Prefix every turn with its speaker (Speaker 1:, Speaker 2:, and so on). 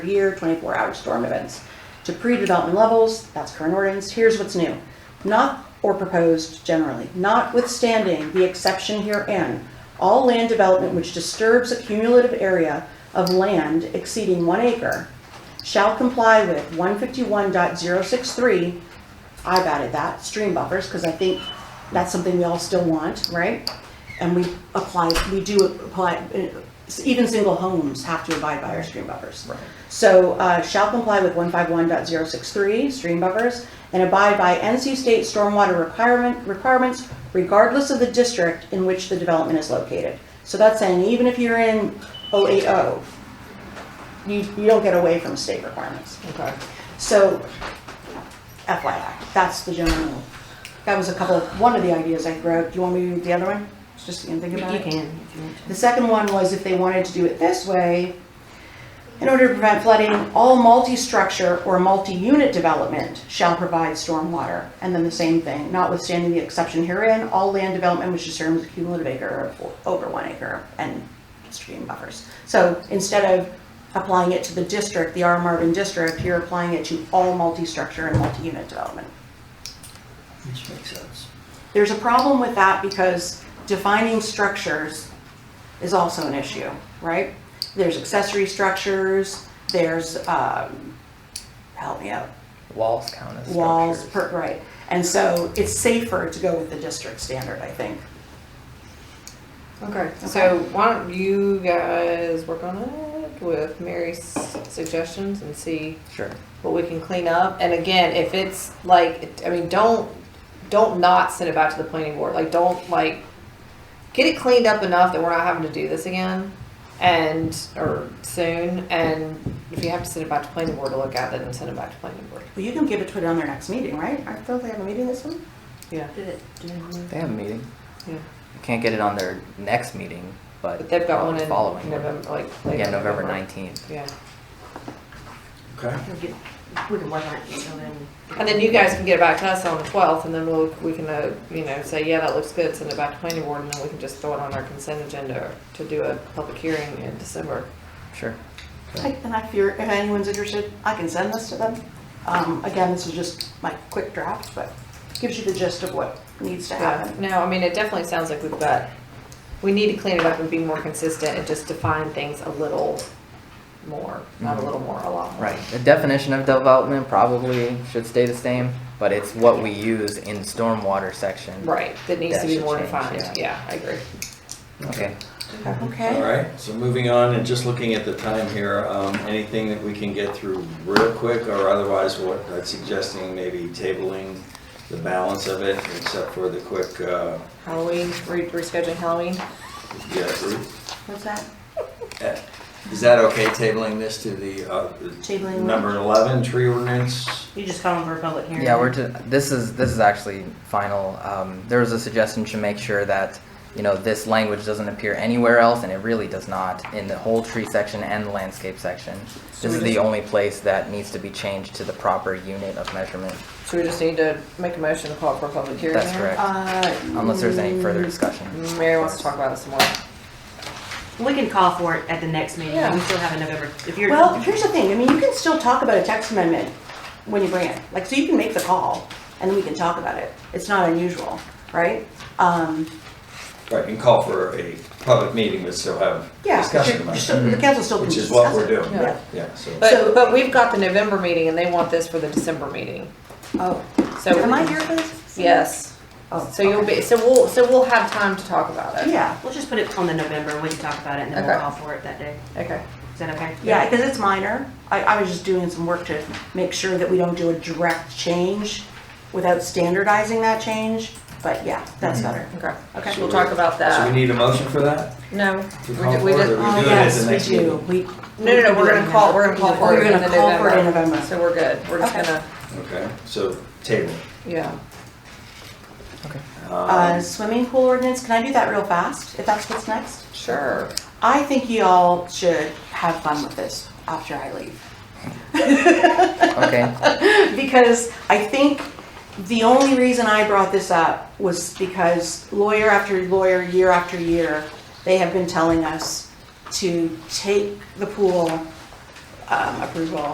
Speaker 1: per year, 24-hour storm events. To pre-development levels, that's current ordinance, here's what's new. Not, or proposed generally, notwithstanding the exception herein, all land development which disturbs a cumulative area of land exceeding one acre shall comply with 151.063, I've added that, stream buffers, because I think that's something we all still want, right? And we apply, we do apply, uh, even single homes have to abide by our stream buffers. So uh, shall comply with 151.063, stream buffers, and abide by NC state stormwater requirement, requirements regardless of the district in which the development is located. So that's saying even if you're in 080, you, you don't get away from state requirements.
Speaker 2: Okay.
Speaker 1: So FYI, that's the general, rule. that was a couple of, one of the ideas I wrote. Do you want me to do the other one? Just so you can think
Speaker 2: You
Speaker 1: about
Speaker 2: can,
Speaker 1: it.
Speaker 2: if you want
Speaker 1: The second one was if they wanted to do it this way, in order to prevent flooding, all multi-structure or multi-unit development shall provide stormwater. And then the same thing, notwithstanding the exception herein, all land development which determines a cumulative acre of over one acre and stream buffers. So instead of applying it to the district, the R Marvin district, you're applying it to all multi-structure and multi-unit development.
Speaker 3: Which makes sense.
Speaker 1: There's a problem with that because defining structures is also an issue, right? There's accessory structures, there's, um, help me out,
Speaker 4: Walls count as
Speaker 1: walls,
Speaker 4: structures.
Speaker 1: per, right? And so it's safer to go with the district standard, I think.
Speaker 2: to. Okay, so why don't you guys work on it with Mary's suggestions and see
Speaker 4: Sure.
Speaker 2: what we can clean up. And again, if it's like, I mean, don't, don't not send it back to the planning board. Like, don't like, get it cleaned up enough that we're not having to do this again and, or soon. And if you have to send it back to planning board to look at, then send it back to planning board.
Speaker 1: Well, you can give it to it on their next meeting, right? I thought they have a meeting this week.
Speaker 2: Yeah.
Speaker 4: They have a meeting.
Speaker 2: Yeah.
Speaker 4: You can't get it on their next meeting, but,
Speaker 2: But they've got
Speaker 4: on
Speaker 2: one
Speaker 4: the
Speaker 2: in
Speaker 4: following one.
Speaker 2: November, like. late
Speaker 4: Yeah, November 19th.
Speaker 2: Yeah.
Speaker 3: Okay.
Speaker 5: We can work on it until then.
Speaker 2: And then you guys can get it back to us on the twelfth, and then we'll, we can, uh, you know, say, yeah, that looks good, send it back to planning board, and then we can just throw it on our consent agenda to do a public hearing in December.
Speaker 4: Sure.
Speaker 1: I- And I fear, if anyone's interested, I can send this to them. Um, again, this is just my quick draft, but gives you the gist of what needs to
Speaker 2: Yeah,
Speaker 1: happen.
Speaker 2: no, I mean, it definitely sounds like we've got, we need to clean it up and be more consistent and just define things a little more, not a
Speaker 4: Mhm.
Speaker 2: little more, a lot more.
Speaker 4: Right. The definition of development probably should stay the same, but it's what we use in stormwater section.
Speaker 2: Right, that needs to
Speaker 4: That
Speaker 2: be
Speaker 4: should
Speaker 2: more
Speaker 4: change,
Speaker 2: defined, yeah, I agree.
Speaker 4: Okay.
Speaker 1: Okay?
Speaker 3: All right, so moving on and just looking at the time here, um, anything that we can get through real quick or otherwise what I'm suggesting maybe tabling the balance of it except for the quick, uh,
Speaker 2: Halloween, re- rescheduling Halloween,
Speaker 3: yeah, Ruth?
Speaker 1: What's that?
Speaker 3: Uh, Is that okay, tabling this to the, uh,
Speaker 1: Tabling what?
Speaker 3: number 11 tree ordinance?
Speaker 5: You just call them for a public hearing.
Speaker 4: Yeah, we're to, this is this is actually final. Um, there was a suggestion to make sure that you know this language doesn't appear anywhere else, and it really does not in the whole tree section and the landscape section.
Speaker 2: So
Speaker 4: This
Speaker 2: we
Speaker 4: is the
Speaker 2: just-
Speaker 4: only place that needs to be changed to the proper unit of measurement.
Speaker 2: so we just need to make a motion to call for a public hearing
Speaker 4: That's
Speaker 2: there?
Speaker 4: correct.
Speaker 1: Uh,
Speaker 4: Unless there's any further discussion.
Speaker 2: Um, Mary wants to talk about this some more.
Speaker 5: We can call for it at the next meeting.
Speaker 2: Yeah.
Speaker 5: We still have a November, if you're.
Speaker 1: Well, here's the thing, I mean, you can still talk about a text amendment when you bring it, like, so you can make the call, and then we can talk about it, it's not unusual, right? Um,
Speaker 3: Right, and call for a public meeting, but still have
Speaker 1: yeah, but
Speaker 3: discussion
Speaker 1: you're- you're
Speaker 3: about it.
Speaker 1: still- the council still can
Speaker 3: Which
Speaker 1: discuss
Speaker 3: is
Speaker 1: it.
Speaker 3: what we're doing.
Speaker 2: Yeah.
Speaker 3: Yeah, so.
Speaker 1: So-
Speaker 2: But, but we've got the November meeting and they want this for the December meeting.
Speaker 1: Oh,
Speaker 2: So
Speaker 1: am I here for this?
Speaker 2: Yes.
Speaker 1: Oh,
Speaker 2: So you'll be, so we'll, so we'll have time to talk about it.
Speaker 1: Yeah,
Speaker 5: We'll just put it on the November, we can talk about it, and then we'll
Speaker 2: Okay.
Speaker 5: call for it that day.
Speaker 2: Okay.
Speaker 5: Is that okay?
Speaker 1: yeah, because it's minor, I, I was just doing some work to make sure that we don't do a direct change without standardizing that change, but yeah, that's
Speaker 3: Mm-hmm.
Speaker 1: better.
Speaker 2: Okay.
Speaker 1: Okay.
Speaker 2: We'll talk about
Speaker 3: So we
Speaker 2: that.
Speaker 3: need a motion for that?
Speaker 2: No.
Speaker 3: To
Speaker 2: we
Speaker 3: call
Speaker 2: ju- we
Speaker 3: for it,
Speaker 2: ju-
Speaker 3: or-
Speaker 1: Oh,
Speaker 3: do it at
Speaker 1: yes,
Speaker 3: the
Speaker 1: we
Speaker 3: next meeting?
Speaker 1: do, we.
Speaker 2: No, no, no, we're gonna call, we're gonna call for
Speaker 1: We're
Speaker 2: it in
Speaker 1: gonna
Speaker 2: the
Speaker 1: call for it in
Speaker 2: November.
Speaker 1: November.
Speaker 2: So we're good. We're just
Speaker 1: Okay.
Speaker 2: gonna,
Speaker 3: Okay, so table.
Speaker 2: yeah.
Speaker 4: Okay.
Speaker 1: Uh,
Speaker 3: Um,
Speaker 1: swimming pool ordinance, can I do that real fast, if that's what's next?
Speaker 2: Sure.
Speaker 1: I think y'all should have fun with this after I leave.
Speaker 4: Okay.
Speaker 1: Because I think the only reason I brought this up was because lawyer after lawyer, year after year, they have been telling us to take the pool um, approval